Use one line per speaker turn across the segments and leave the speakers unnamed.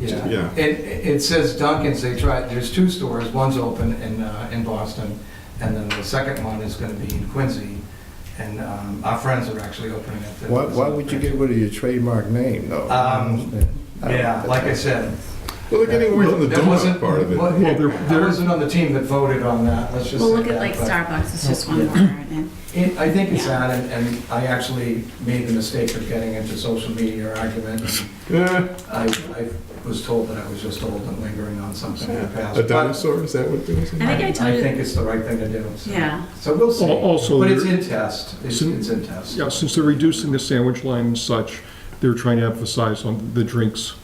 Yeah.
Yeah.
It, it says Dunkin's, they tried, there's two stores, one's open in, uh, in Boston, and then the second one is gonna be in Quincy, and, um, our friends are actually opening it.
Why, why would you get rid of your trademark name, though? I don't
Um,
understand. I don't-
Yeah, like I said.
Well, they're getting away from the
that wasn't-
donut part of
Well,
it.
they're-
I wasn't on the team that voted on that, let's just
Well,
say
look at
that,
like
but- Oh,
Starbucks, it's just one more. and
It, I think it's
Yeah.
on, and, and I actually made the mistake of getting into social media argument.
Yeah,
I, I was told that I was just old and lingering on something in the past.
a
but
dinosaur, is that what it was?
I think I told you-
think it's the right thing to do. so.
Yeah,
So we'll see.
Al- also
But it's
there-
in test, it's,
Sin-
it's in test.
Yeah, since they're reducing the sandwich line and such, they're trying to emphasize on the drinks,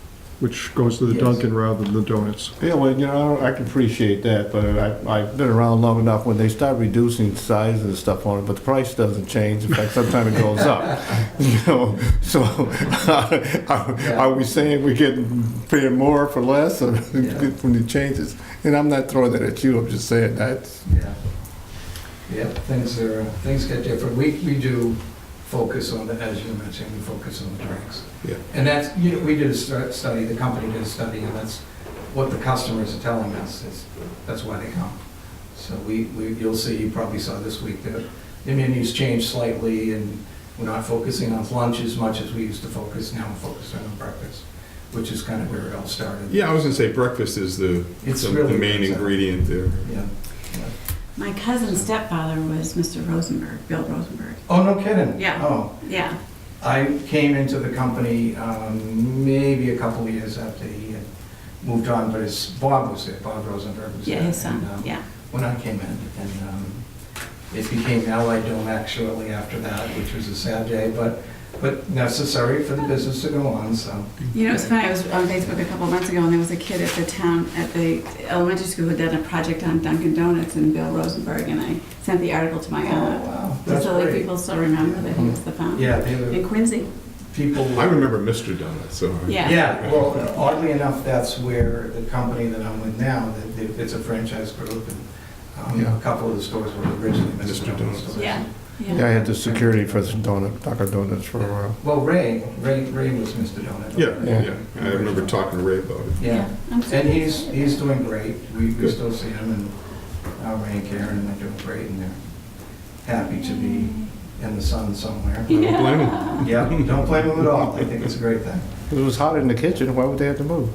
which goes to the
Yes.
Dunkin' rather than the donuts.
Yeah, well, you know, I can appreciate that, but I, I've been around long enough, when they start reducing sizes and stuff on it, but the price doesn't change, in fact, sometimes it goes up, you know, so, are are we saying we're getting, paying more for less, or
Yeah.
when it changes? And I'm not throwing that at you, I'm just saying that's,
Yeah. Yep, things are, things get different. We, we do focus on the, as you mentioned, we focus on the drinks.
Yeah.
And that's, you know, we did a stu- study, the company did a study, and that's what the customers are telling us, is, that's why they come. So we, we, you'll see, you probably saw this week, that the menus changed slightly, and we're not focusing on lunch as much as we used to focus, now we're focusing on breakfast, which is kind of where it all started.
Yeah, I was gonna say breakfast is the,
It's
the
really
the main
good.
ingredient there.
Yeah.
my cousin's stepfather was Mr. Rosenberg, Bill Rosenberg.
Oh, no kidding?
Yeah.
Oh.
Yeah,
I came into the company um, maybe a couple of years after he had moved on, but his, Bob was there, Bob Rosenberg was there.
yeah, his son,
and, um,
yeah.
When I came in, and um, it became Allied Domac shortly after that, which was a sad day, but, but necessary for the business to go on, so.
You know, it's funny, I was on Facebook a couple months ago, and there was a kid at the town, at the elementary school who did a project on Dunkin' Donuts and Bill Rosenberg, and I sent the article to my aunt.
wow, Oh, that's
So like
great.
people still remember that he was the founder.
Yeah, they were,
In Quincy,
people.
I remember Mr. Donut, so. I-
Yeah.
Yeah, well, oddly enough, that's where the company that I'm with now, that- that it's a franchise group, and um,
Yeah.
a couple of the stores were originally
Mr.
Mr.
Donuts.
Donuts stores.
yeah,
yeah, I
yeah.
had the security for donut, Dunkin' Donuts for a while.
Well, Ray, Ray, Ray was Mr. Donut.
Yeah,
Yeah.
yeah, I remember talking to Ray about it.
Yeah,
I'm so
and he's,
excited.
he's doing great. We, we
Good.
still see him and uh, Ray and Karen, and they're doing great, and they're happy to be in the sun somewhere.
I don't blame him.
Yeah, don't blame him at all. I think it's a great thing.
It was hot in the kitchen, why would they have to move?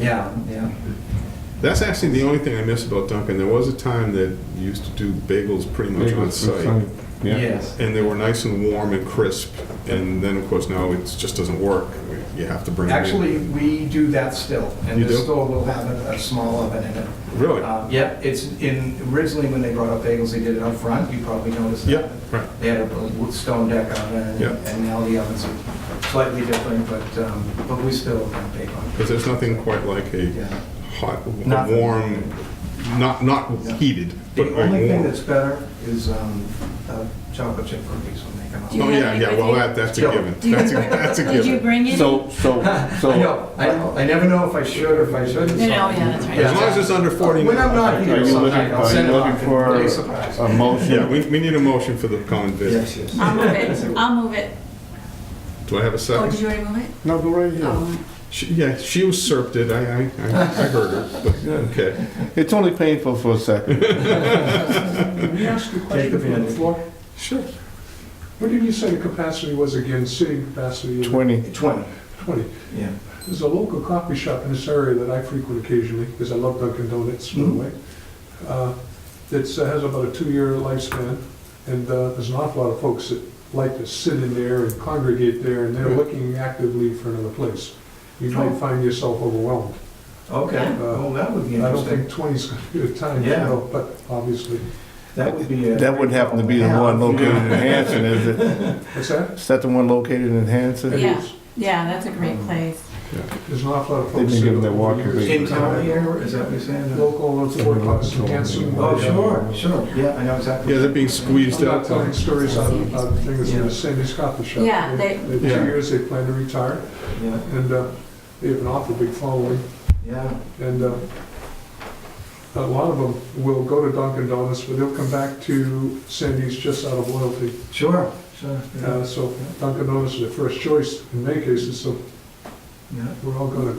Yeah, yeah.
That's actually the only thing I miss about Dunkin'. There was a time that you used to do bagels pretty much on site.
Yeah.
Yes.
And they were nice and warm and crisp. And then, of course, now it just doesn't work. You have to bring them in.
Actually, we do that still, and
You
the
do?
store will have a, a small oven in it.
Really?
Uh, Yeah, it's in, originally when they brought up bagels, they did it up front. You probably noticed that.
Yeah, right.
They had a wood- stone deck on it,
Yeah.
and now the ovens are slightly different, but, um, but we still bake on it.
Because there's nothing quite like a
Yeah.
hot,
Not-
warm, not, not
Yeah.
heated, but
The
like
only thing
warm.
that's better is um, uh, chocolate chip cookies when they come
Do you
Oh,
out.
have
yeah,
any
yeah,
with
well,
you?
that, that's a
Joe.
given. That's a, that's a
Did you
given.
bring any?
So, so, so.
I know, I know, I never know if I should or if I shouldn't.
No,
so-
no, yeah, that's right.
As long as it's under 40.
When I'm not
Are
here,
you
so
looking-
I'll
are
send
you
it off.
looking for
Big surprise.
A
Yeah,
motion?
we, we need a motion for the common vic.
Yes, yes.
I'll move it, I'll move it.
Do I have a
Oh,
second?
did you already move it?
No, go right here.
Oh,
She- Yeah, she usurped it. I, I, I I heard her, but, okay.
It's only painful for a second.
Can we ask a
Take the
question from the
pen.
floor?
Sure.
What did you say the capacity was again, sitting capacity? of
20.
20,
20.
yeah.
There's a local coffee shop in this area that I frequent occasionally, because I love Dunkin' Donuts, by the
Mhm.
way. uh, That has about a two-year lifespan, and uh, there's an awful lot of folks that like to sit in there and congregate there, and they're
Right.
looking actively for another place. You
Oh.
might find yourself overwhelmed.
Okay,
Uh,
well, that would be
I don't think
interesting.
20's going to be the time, you
Yeah.
know, but obviously.
That would be a.
That would happen to be the one located in Hanson, is it?
What's that?
Is that the one located in
It
Hanson?
Yeah.
is.
yeah, that's a great
Um,
place.
There's an awful lot of
They
folks.
can give them
that
their walking
over the years-
boots.
In town here, is that what you're saying?
local four bucks in Hanson.
Oh, sure, sure, yeah, I know exactly.
Yeah, they're being
I'm
squeezed
not
out.
telling stories out of, out of things in the Sandy's coffee shop.
Yeah, they-
In two
Yeah.
years, they plan to retire,
Yeah,
and uh, they have an awful big following,
yeah,
and uh, a lot of them will go to Dunkin' Donuts, but they'll come back to Sandy's just out of loyalty.
sure, sure. yeah,
Uh, So Dunkin' Donuts is their first choice in many cases, so
Yeah.
we're all gonna